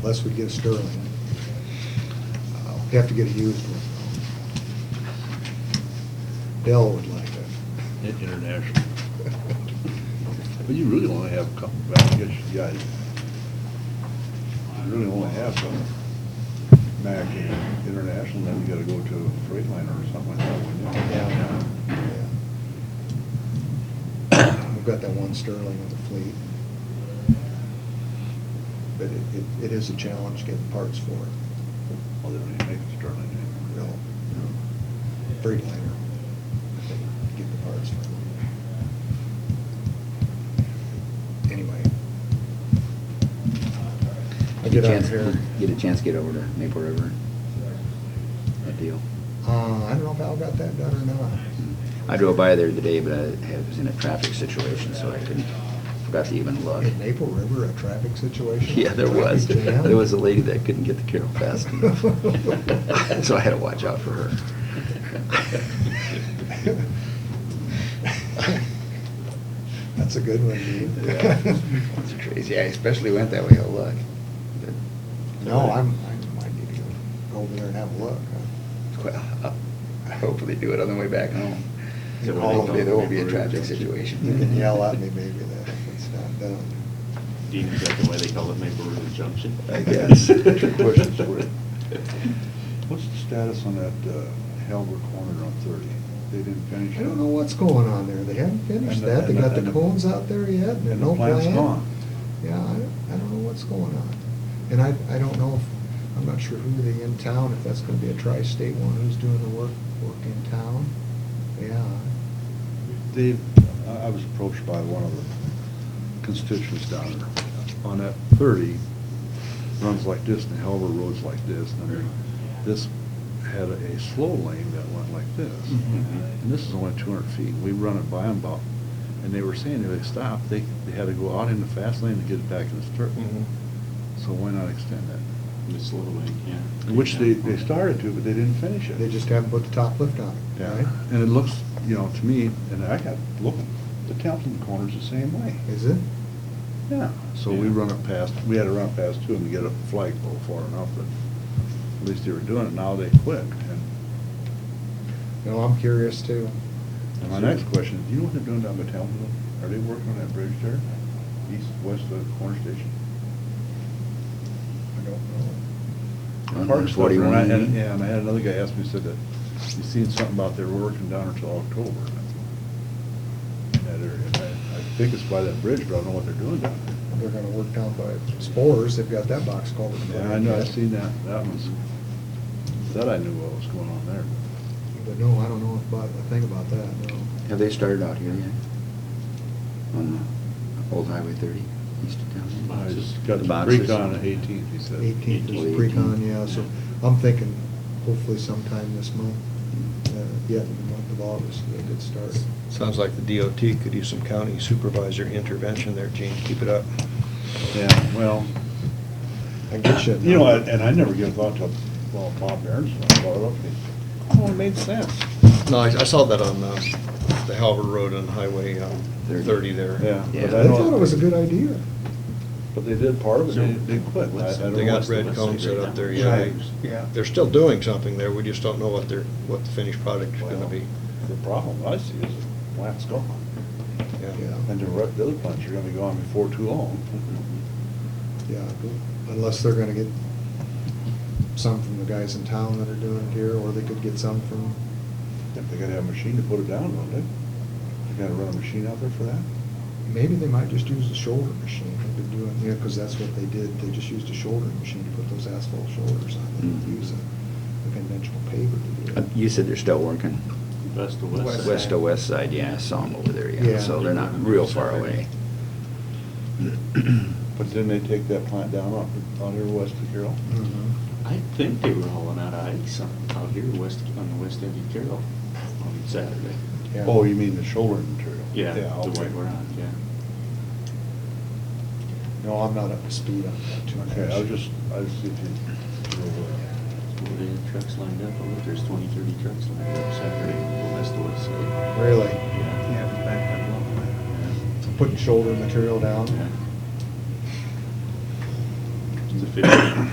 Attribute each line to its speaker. Speaker 1: unless we get a Sterling. Uh, We have to get a used one. Dell would like that.
Speaker 2: In- International. But you really only have a couple back against you guys. You really only have some Mac International, then you gotta go to a Freightliner or something like that, wouldn't you?
Speaker 1: Yeah. We've got that one Sterling in the fleet. But it, it it is a challenge getting parts for it.
Speaker 2: Well, they don't even make the Sterling anymore.
Speaker 1: No, no. Freightliner, I think, get the parts for it. Anyway.
Speaker 3: Get a
Speaker 1: Get out
Speaker 3: chance,
Speaker 1: here.
Speaker 3: get a chance to get over to Maple River. That deal.
Speaker 1: Uh, I don't know if Al got that done or not.
Speaker 3: I drove by there today, but I had- was in a traffic situation, so I couldn't, forgot to even look.
Speaker 1: In Maple River, a traffic situation?
Speaker 3: Mm, Yeah, there was.
Speaker 1: Traffic jam?
Speaker 3: There was a lady that couldn't get the carol fast enough. So I had to watch out for her.
Speaker 1: That's a good one, Dean.
Speaker 3: Yeah, It's crazy. I especially went that way to look. But-
Speaker 1: No, I'm, I might need to go over there and have a look. huh?
Speaker 3: Well, I'll hopefully do it on the way back home.
Speaker 1: Is it where they
Speaker 3: Hopefully,
Speaker 1: go?
Speaker 3: there won't be a traffic situation.
Speaker 1: You can yell at me maybe that if it's not done.
Speaker 4: Dean, is that the way they call it Maple River Junction?
Speaker 3: I guess.
Speaker 2: Questions for you. What's the status on that uh, Halbert corner on thirty? They didn't finish it?
Speaker 1: I don't know what's going on there. They haven't finished
Speaker 2: And the-
Speaker 1: that. They
Speaker 2: and the-
Speaker 1: got
Speaker 2: and
Speaker 1: the
Speaker 2: the-
Speaker 1: cones out there yet, and
Speaker 2: And
Speaker 1: there's
Speaker 2: the
Speaker 1: no plan.
Speaker 2: plant's gone.
Speaker 1: Yeah, I, don't- I don't know what's going on. And I, I don't know, if I'm not sure who they in town, if that's gonna be a tri-state one, who's doing the work, work in town. Yeah.
Speaker 2: Dave, I- I was approached by one of the constituents down there. On that thirty, runs like this, and Halber Road's like this, and then this had a slow lane that went like this.
Speaker 4: Mhm.
Speaker 2: And this is only two hundred feet, we run it by them about, and they were saying if they stopped, they, they had to go out in the fast lane to get it back in the circle. So why not extend that?
Speaker 4: The slow lane, yeah.
Speaker 2: Which they, they started to, but they didn't finish it.
Speaker 1: They just haven't put the top lift on it,
Speaker 2: Yeah,
Speaker 1: right?
Speaker 2: and it looks, you know, to me, and I got, look, the Townsend corner's the same way.
Speaker 1: Is it?
Speaker 2: Yeah, so we
Speaker 4: Yeah.
Speaker 2: run it past, we had to run it past two and get a flagpole far enough, but at least they were doing it, now they quit. And
Speaker 1: No, I'm curious too.
Speaker 2: and my next question, do you know what they're doing down by Townsend? Are they working on that bridge there, east, west of the corner station?
Speaker 1: I don't know.
Speaker 3: On
Speaker 2: Park stuff, and I-
Speaker 3: 41.
Speaker 2: and- Yeah, and I had another guy ask me, said that, you seen something about they were working down until October. in That area, And I, I think it's by that bridge, but I don't know what they're doing down there.
Speaker 1: They're gonna work down by Spores, they've got that box culvert.
Speaker 2: Yeah, I know, I seen that, that one's, that I knew what was going on there.
Speaker 1: But no, I don't know about, a thing about that, no.
Speaker 3: Have they started out here yet? On uh, Old Highway 30, east of town?
Speaker 2: I just
Speaker 3: The
Speaker 2: got the
Speaker 3: boxes.
Speaker 2: pre-con on the eighteenth, he said.
Speaker 1: Eighteenth
Speaker 3: Eighteenth.
Speaker 1: is pre-con, yeah, so I'm thinking hopefully sometime this month, uh, yet in the month of August, they could start.
Speaker 5: Sounds like the DOT could use some county supervisor intervention there, Gene. Keep it up.
Speaker 2: Yeah, well,
Speaker 1: I get you.
Speaker 2: you know, and and I never give thought to, well, Bob Barron's, I brought it up, he, oh, it made sense.
Speaker 5: No, I I saw that on uh, the Halbert Road and Highway um,
Speaker 3: Thirty.
Speaker 5: 30 there.
Speaker 2: Yeah. but
Speaker 3: Yeah.
Speaker 1: I thought it was a good idea.
Speaker 2: But they did part of it, they, they quit. I- I don't
Speaker 5: They
Speaker 2: know
Speaker 5: got
Speaker 2: what's the-
Speaker 5: red cones set up there, yeah.
Speaker 2: Right.
Speaker 5: They- They're still doing something there, we just don't know what their, what the finished product's gonna
Speaker 2: Well,
Speaker 5: be.
Speaker 2: The problem I see is the plant's gone,
Speaker 1: Yeah.
Speaker 2: and the re- the other plants are gonna be gone before too long.
Speaker 1: Yeah, unless they're gonna get some from the guys in town that are doing it here, or they could get some from,
Speaker 2: If They gotta have a machine to put it down, don't they? They gotta run a machine out there for that?
Speaker 1: maybe they might just use the shoulder machine they've been doing, yeah, because that's what they did. They just used a shoulder machine to put those asphalt shoulders on. They didn't
Speaker 2: Mm-hmm.
Speaker 3: Mhm.
Speaker 1: use a a conventional paver to do
Speaker 3: Uh,
Speaker 1: it.
Speaker 3: You said they're still working?
Speaker 4: West to west. side.
Speaker 3: West to west side, yeah, I saw them over there,
Speaker 1: Yeah.
Speaker 3: yeah, so they're not real far away.
Speaker 2: But didn't they take that plant down on, on here west of Carroll?
Speaker 1: Mhm.
Speaker 4: I think they were hauling out ice on, out here west, on the west end of Carroll on Saturday.
Speaker 1: Yeah.
Speaker 2: Oh, you mean the shoulder material?
Speaker 4: Yeah, the
Speaker 2: okay.
Speaker 4: way we're on, yeah.
Speaker 1: No, I'm not up to speed on that too much.
Speaker 2: Okay, I was just, I was thinking.
Speaker 4: Well, they had trucks lined up, I looked, there's twenty, thirty trucks lined up Saturday, from west to west side.
Speaker 1: Really,
Speaker 4: Yeah.
Speaker 6: Yeah, we backed up a little bit.
Speaker 1: putting shoulder material down?
Speaker 4: Yeah. It's a fifty,